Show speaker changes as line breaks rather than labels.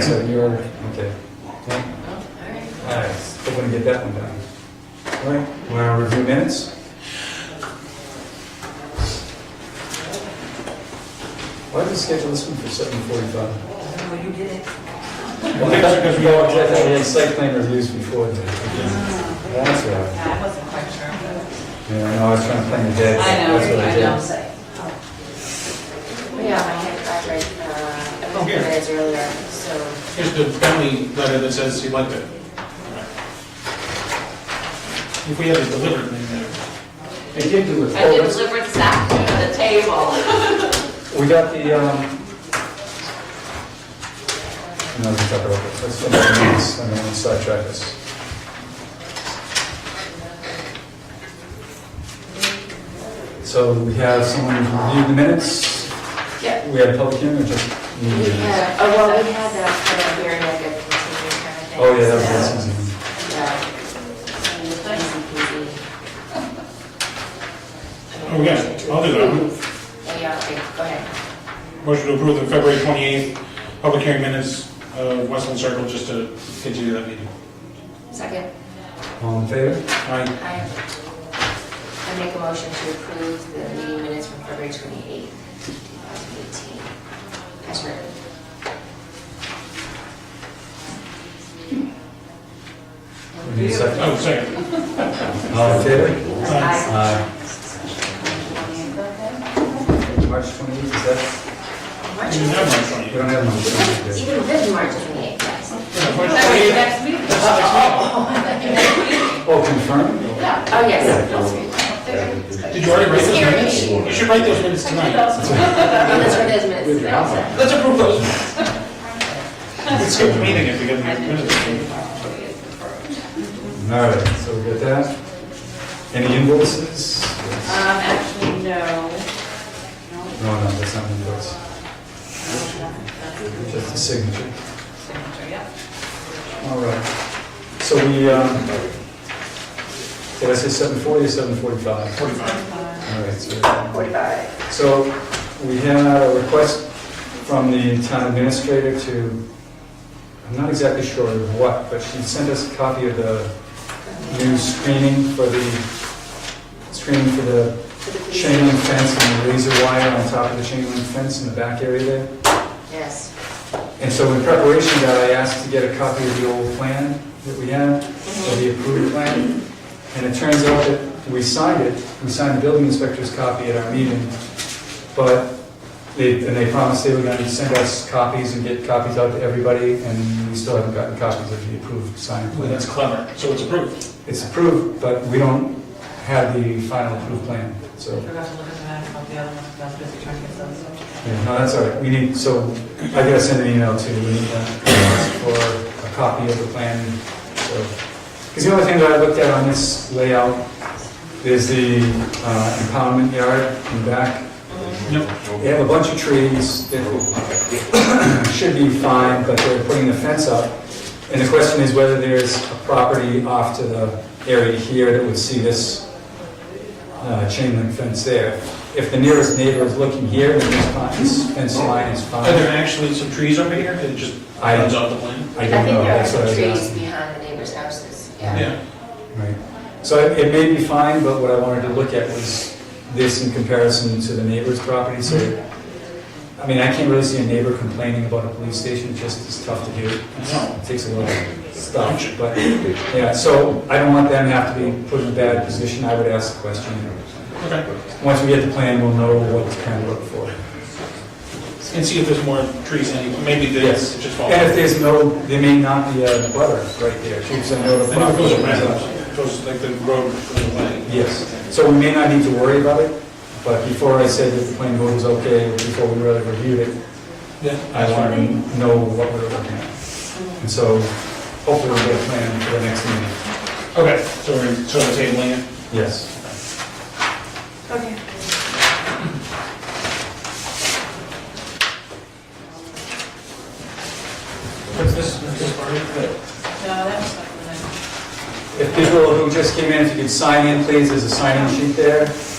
So you're, okay. Okay.
Oh,
All right, still gonna get that one done. All right, wanna review minutes? Why did we schedule this one for seven forty-five?
Oh, you did it.
Well, that's because we all did that, we had site plan reviews before. then. That's all right.
I wasn't quite sure.
Yeah, I know, I was trying to plan the day.
I know,
That's what
I
did.
Oh. Yeah, I had that right, uh, a couple
Here.
days earlier, so.
Here's the family letter that says he liked it. If we had it delivered, then uh,
They did do it.
I did deliver this afternoon at the table.
We got the, um... No, we can talk about this, let's look at the minutes, and then we'll sidetrack this. So we have someone review the minutes?
Yeah.
We had a public hearing or just?
We had, oh, well, we had that kind of hearing, like a continued kind of thing.
Oh, yeah, that
so,
was Susan.
Yeah. So, easy peasy.
Oh, yeah, I'll do that.
Oh, Yeah, okay, go ahead.
motion to approve the February 28th public hearing minutes of Westland Circle, just to continue that meeting.
Second,
All in favor?
Aye.
I, I make a motion to approve the meeting minutes from February twenty-eighth, two thousand eighteen. As written.
We need a second.
Oh, second.
Oh.
All in favor?
Aye.
March 28th, is that,
March
We didn't
we don't
28th.
have March 28th.
have one.
Even with March twenty-eighth, yes. Oh,
That was
Yeah, March 28th.
next week.
Oh, confirmed?
Yeah.
Oh, yes.
Did you already write those
Scary.
minutes? You should write those minutes tonight.
Oh, that's right, those minutes. They're all set.
Let's approve those. Let's skip the meeting if we get the minutes.
All right, so we got that. Any invoices?
Um, actually, no.
No, no, that's not an invoice. Just a signature.
Signature, yeah.
All right. So we, um, did I say 740 or 745?
45.
All right, so. 45. So we had a request from the town administrator to, I'm not exactly sure of what, but she sent us a copy of the new screening for the, screening for the chain link fence and the laser wire on top of the chain link fence in the back area there.
Yes.
And so in preparation for that, I asked to get a copy of the old plan that we had, of the approved plan. And it turns out that we signed it, we signed the building inspector's copy at our meeting, but they, and they promised they were going to send us copies and get copies out to everybody, and we still haven't gotten copies of the approved signed
Well,
plan.
that's clever. So it's approved.
It's approved, but we don't have the final approved plan, so.
I forgot to look at the map about the other ones, because I was busy trying to get those.
Yeah, no, that's all right, we need, so I gotta send an email to, we need uh, for a copy of the plan, so. Because the only thing that I looked at on this layout is the uh, impoundment yard in the back.
Yep.
They have a bunch of trees that should be fine, but they're putting the fence up. And the question is whether there's a property off to the area here that would see this uh, chain link fence there. If the nearest neighbor is looking here, then this fine- this fence line is
Are there
fine.
actually some trees over here? It just
I-
runs off the plan?
I
I
don't
think
know,
there are
that's what I
some
was
trees
asking.
behind the neighbors' houses, yeah.
Yeah.
Right. So it it may be fine, but what I wanted to look at was this in comparison to the neighbor's property, so, I mean, I can't really see a neighbor complaining about a police station, it's just it's tough to do.
I know.
It takes a lot of stuff, but, yeah, so I don't want them to have to be put in a bad position, I would ask the question.
Okay.
Once we get the plan, we'll know what to kind of look for.
And see if there's more trees anywhere, maybe they
Yes.
just fall.
And if there's no, there may not be a butter right there, keeps a note of.
Then it goes around, goes like the road goes away.
Yes, so we may not need to worry about it, but before I said that the plan board was okay, before we really reviewed it,
Yeah.
I wanted to know what we were looking at. And so hopefully we'll get a plan for the next meeting.
Okay, so we're sort of tabling it.
Yes.
Okay.
What's this, is this part of it?
No, that was like the next.
If people who just came in, if you could sign in, please, there's a sign-in sheet there. If